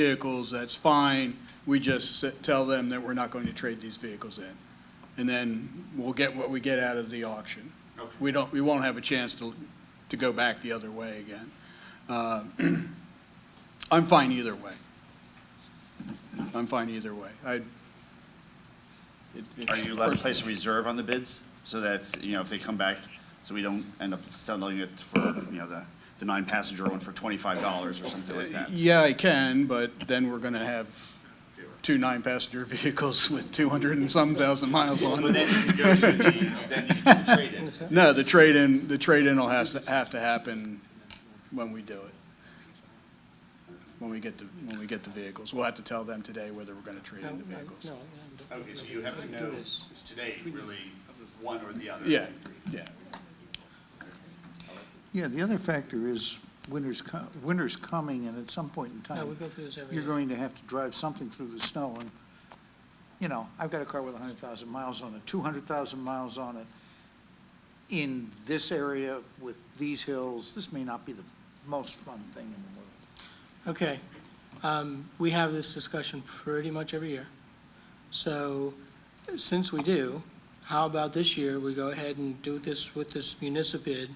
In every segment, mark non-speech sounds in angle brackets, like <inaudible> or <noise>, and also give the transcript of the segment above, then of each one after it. vehicles, that's fine. We just s- tell them that we're not going to trade these vehicles in. And then we'll get what we get out of the auction. We don't, we won't have a chance to, to go back the other way again. Uh, <clears throat> I'm fine either way. I'm fine either way. I. it- it's Are you allowed to personal. place a reserve on the bids so that, you know, if they come back, so we don't end up selling it for, you know, the, the nine-passenger one for twenty-five dollars or something like that? Yeah, I can, but then we're going to have two nine-passenger <laughs> vehicles with 200 and some thousand miles on them. But then if you go to the, then you can trade it. No, the trade-in, the trade-in will have, to- have to happen when we do it. When we get the, when we get the vehicles. We'll have to tell them today whether we're gonna trade No, in the no, vehicles. no. Okay, so you have to know today, really, one or the other. Yeah, yeah. Yeah, the other factor is winter's, co- winter's coming, and at some point in No, we time, go through this every you're year. going to have to drive something through the snow, and, you know, I've got a car with 100,000 miles on it, 200,000 miles on it. In this area with these hills, this may not be the most fun thing in the world. Okay, um, we have this discussion pretty much every year. So, since we do, how about this year, we go ahead and do this with this municipal bid,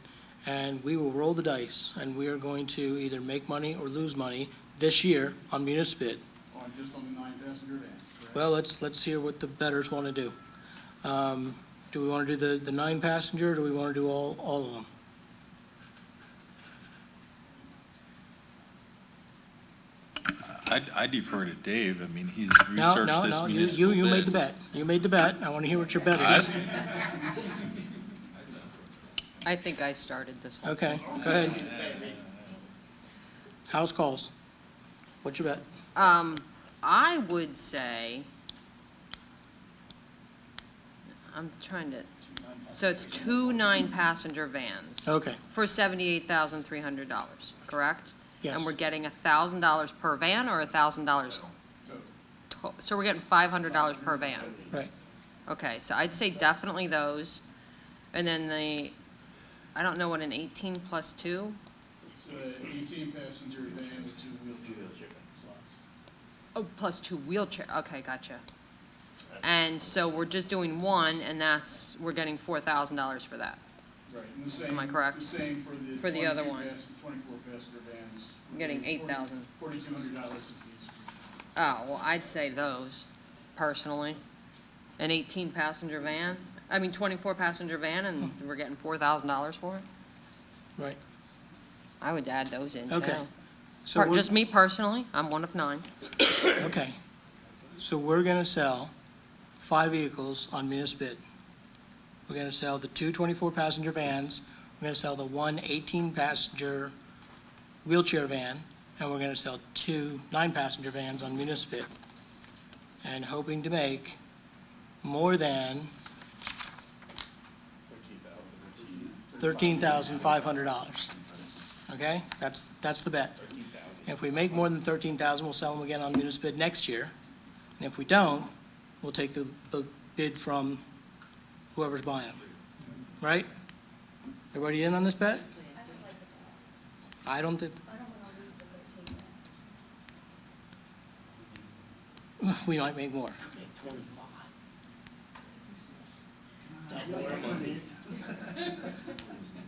and we will roll the dice, and we are going to either make money or lose money this year on municipal bid. On, just on the nine-passenger van? Well, let's, let's hear what the betters want to do. Um, Do we want to do the, the nine passenger, or do we want to do all, all of them? I I defer to Dave. I mean, he's No, researched no, this no, you, you you municipal made the bid. bet. You made the bet. I want to hear what your bet I- is. I think I started this one. Okay, go ahead. House calls. What's your bet? Um, I would say, I'm trying to, so it's two nine-passenger vans Okay, for seventy-eight thousand three hundred dollars, correct? yes. And we're getting a thousand dollars per van or a thousand dollars? So we're getting five hundred dollars per van? Right. Okay, so I'd say definitely those. And then the, I don't know what an eighteen plus two? It's a eighteen-passenger van with two wheelchair slots. Oh, plus two wheelchair, okay, gotcha. And so we're just doing one, and that's, we're getting four thousand dollars for that. Right, and the same. Am I correct? The same for the. For the other one. Twenty-four passenger vans. I'm getting 8,000. Forty-two hundred dollars apiece. Oh, well, I'd say those, personally. An eighteen passenger van, I mean twenty-four passenger van, and we're getting four thousand dollars for it? Hmm. Right. I would add those in too. Okay. So Per- we're, Just me personally, I'm one of nine. okay. So we're going to sell five vehicles on municipal bid. We're going to sell the two 24-passenger vans, we're going to sell the one 18-passenger wheelchair van, and we're going to sell two nine-passenger vans on municipal bid. And hoping to make more than $13,500. Okay? That's, that's the bet. If we make more than 13,000, we'll sell them again on municipal bid next year. And if we don't, we'll take the, the bid from whoever's buying them. Right? Everybody in on this bet? I don't think. We might make more.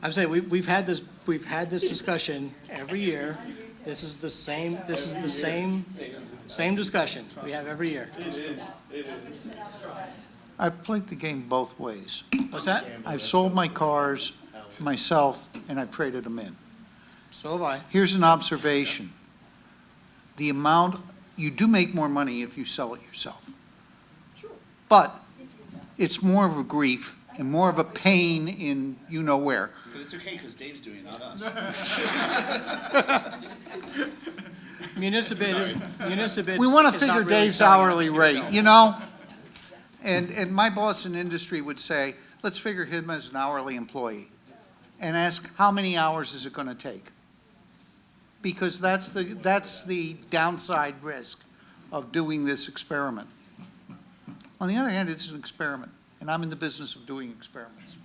I'm saying, we, we've had this, we've had this discussion every year. This is the same, this is the same, same discussion we have every year. I've played the game both ways. What's that? I've sold my cars myself, and I traded them in. So have I. Here's an observation. The amount, you do make more money if you sell it yourself. But it's more of a grief and more of a pain in you-know-where. But it's okay, because Dave's doing it, not us. Municipal bid is, municipal bid We want to is not figure really Dave's selling it hourly rate, yourself. you know? And, and my boss in industry would say, let's figure him as an hourly employee and ask, how many hours is it going to take? Because that's the, that's the downside risk of doing this experiment. On the other hand, it's an experiment, and I'm in the business of doing experiments.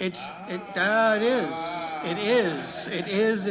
It's, it, uh, it is, it is, it is,